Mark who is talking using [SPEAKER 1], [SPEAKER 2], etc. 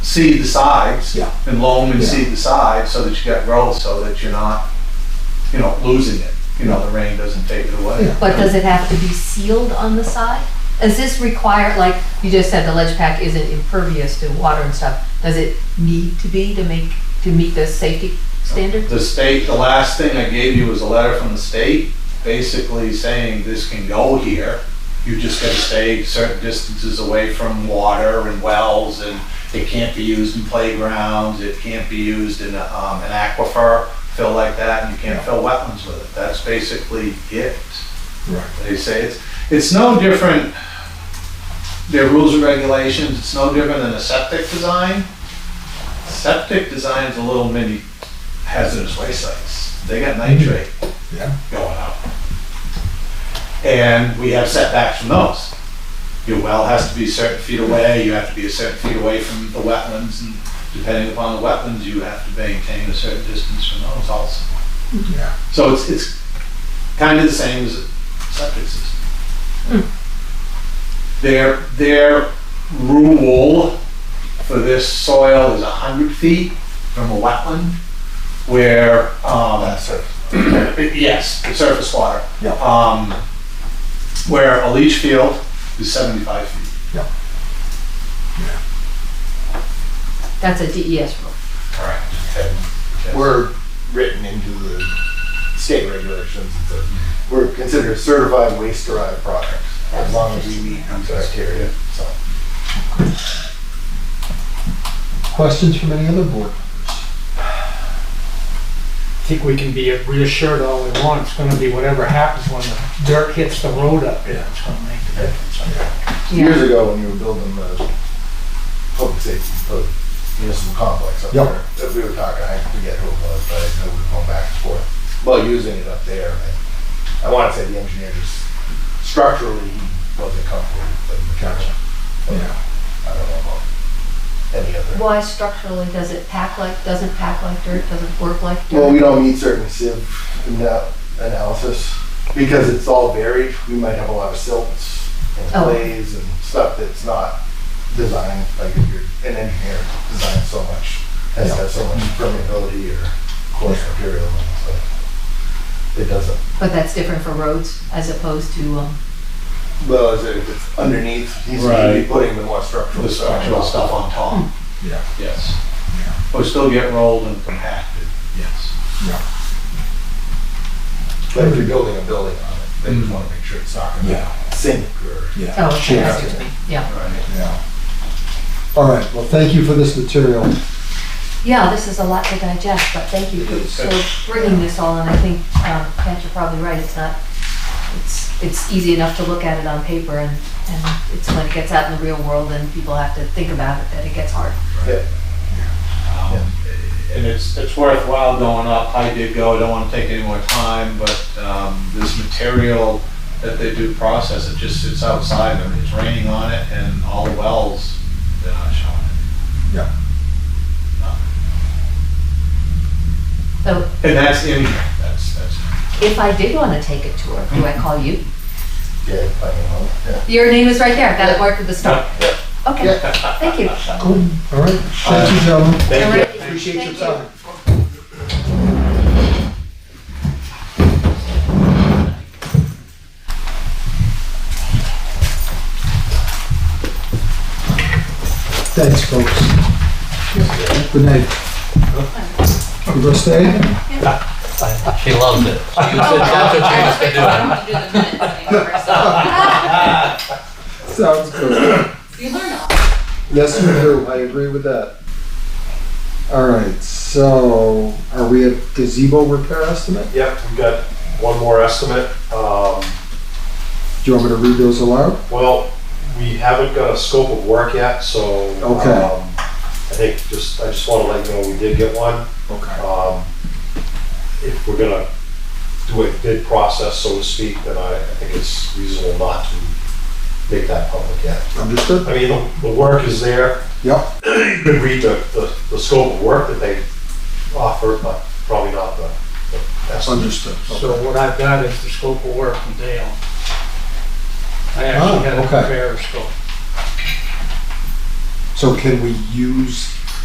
[SPEAKER 1] seed the sides.
[SPEAKER 2] Yeah.
[SPEAKER 1] And loam and
[SPEAKER 2] Yeah.
[SPEAKER 1] seed the sides so that you got growth, so that you're not, you know, losing it. You know, the rain doesn't take it away.
[SPEAKER 2] Yeah.
[SPEAKER 3] But does it have to be sealed on the side? Does this require, like, you just said the ledge pack isn't impervious to water and stuff. Does it need to be to make, to meet the safety standards?
[SPEAKER 1] The state, the last thing I gave you was a letter from the state, basically saying this can go here. You just gotta stay certain distances away from water and wells, and it can't be used in playgrounds, it can't be used in, um, an aquifer, fill like that, and you can't fill wetlands with it. That's basically it.
[SPEAKER 2] Right.
[SPEAKER 1] They say it's, it's no different, their rules and regulations, it's no different than a septic design. Septic design's a little mini hazardous waste sites. They got nitrate
[SPEAKER 2] Yeah.
[SPEAKER 1] going up. And we have setbacks from those. Your well has to be certain feet away, you have to be a certain feet away from the wetlands, and depending upon the wetlands, you have to maintain a certain distance from those also.
[SPEAKER 2] Yeah.
[SPEAKER 1] So it's, it's kind of the same as a septic system. Their, their rule for this soil is hundred feet from a wetland where, um,
[SPEAKER 2] That's it.
[SPEAKER 1] yes, the surface water.
[SPEAKER 2] Yeah.
[SPEAKER 1] Um, where a leach field is seventy-five feet.
[SPEAKER 3] That's a DES rule.
[SPEAKER 1] Correct.
[SPEAKER 4] we're written into the state regulations. that We're considered certified waste derived products as long as we meet these criteria, so.
[SPEAKER 2] Questions from any other board members?
[SPEAKER 5] I think we can be reassured all we want, it's gonna be whatever happens when the dirt hits the road up there, it's gonna make the difference.
[SPEAKER 4] Years ago, when you were building the public safety, the municipal complex up
[SPEAKER 2] Yep.
[SPEAKER 4] there, that we were talking, I forget who it was, but I know we were going back and forth. Well, using it up there, and I want to say the engineer just structurally he wasn't comfortable with the mechanical.
[SPEAKER 2] Yeah.
[SPEAKER 4] I don't know about any other.
[SPEAKER 3] Why structurally does it pack like, doesn't pack like dirt, doesn't work like dirt?
[SPEAKER 4] Well, we don't need certain sieve ana- analysis because it's all varied. We might have a lot of silts and
[SPEAKER 3] Oh.
[SPEAKER 4] clays and stuff that's not designed, like if you're an engineer, designed so much, has to have so much permeability or coarse material and stuff. It doesn't,
[SPEAKER 3] But that's different for roads as opposed to, um,
[SPEAKER 4] well, as if it's underneath, he's gonna be
[SPEAKER 1] Right.
[SPEAKER 4] putting the more structural
[SPEAKER 1] The
[SPEAKER 4] stuff.
[SPEAKER 1] structural stuff on top.
[SPEAKER 2] Hmm. Yeah.
[SPEAKER 1] Yes. But still get rolled and compacted. Yes.
[SPEAKER 4] But if you're building a building on it, then
[SPEAKER 1] Mm-hmm.
[SPEAKER 4] you wanna make sure it's not gonna
[SPEAKER 2] Yeah.
[SPEAKER 4] sink or.
[SPEAKER 2] Yeah.
[SPEAKER 3] oh, okay,
[SPEAKER 2] Sure.
[SPEAKER 3] excuse me, yeah.
[SPEAKER 1] Right.
[SPEAKER 2] Yeah. All right. Well, thank you for this material.
[SPEAKER 3] Yeah, this is a lot to digest, but thank you for sort of bringing this all, and I think, um, Pat, you're probably right, it's not, it's, it's easy enough to look at it on paper, and, and it's when it gets out in the real world and people have to think about it that it gets hard.
[SPEAKER 1] Um, And it's, it's worthwhile going up. I did go, I don't want to take any more time, but um, this material that they do process, it just sits outside and it's raining on it and all the wells, they're not showing it.
[SPEAKER 2] Yeah.
[SPEAKER 3] So
[SPEAKER 1] And that's in here, that's, that's.
[SPEAKER 3] if I did wanna take a tour, do I call you?
[SPEAKER 4] Yeah, I don't know, yeah.
[SPEAKER 3] Your name is right there, I've got it marked with the star.
[SPEAKER 4] Yeah.
[SPEAKER 3] Okay, thank you.
[SPEAKER 2] Cool. All right. Thank you, gentlemen.
[SPEAKER 1] Thank you.
[SPEAKER 3] Alrighty,
[SPEAKER 2] Appreciate your
[SPEAKER 3] thank you.
[SPEAKER 2] time. Thanks, folks. Good night. You gonna stay?
[SPEAKER 6] She loves it. She was that's what she was doing.
[SPEAKER 2] Sounds good. You learn Yes, you do. I agree with that. All right, so are we at gazebo repair estimate?
[SPEAKER 7] Yep, we've got one more estimate. Um,
[SPEAKER 2] Do you want me to read those aloud?
[SPEAKER 7] Well, we haven't got a scope of work yet, so.
[SPEAKER 2] Okay.
[SPEAKER 7] um, I think just, I just want to let you know we did get one.
[SPEAKER 2] Okay.
[SPEAKER 7] Um, If we're gonna do a bid process, so to speak, then I I think it's reasonable not to make that public yet.
[SPEAKER 2] Understood?
[SPEAKER 7] I mean, the- the work is there.
[SPEAKER 2] Yep.
[SPEAKER 7] You could read the, the- the scope of work that they offer, but probably not the the estimate.
[SPEAKER 2] Understood.
[SPEAKER 5] So what I've got is the scope of work from Dale. I
[SPEAKER 2] Ah,
[SPEAKER 5] actually had a
[SPEAKER 2] okay.
[SPEAKER 5] fair scope.
[SPEAKER 2] So can we use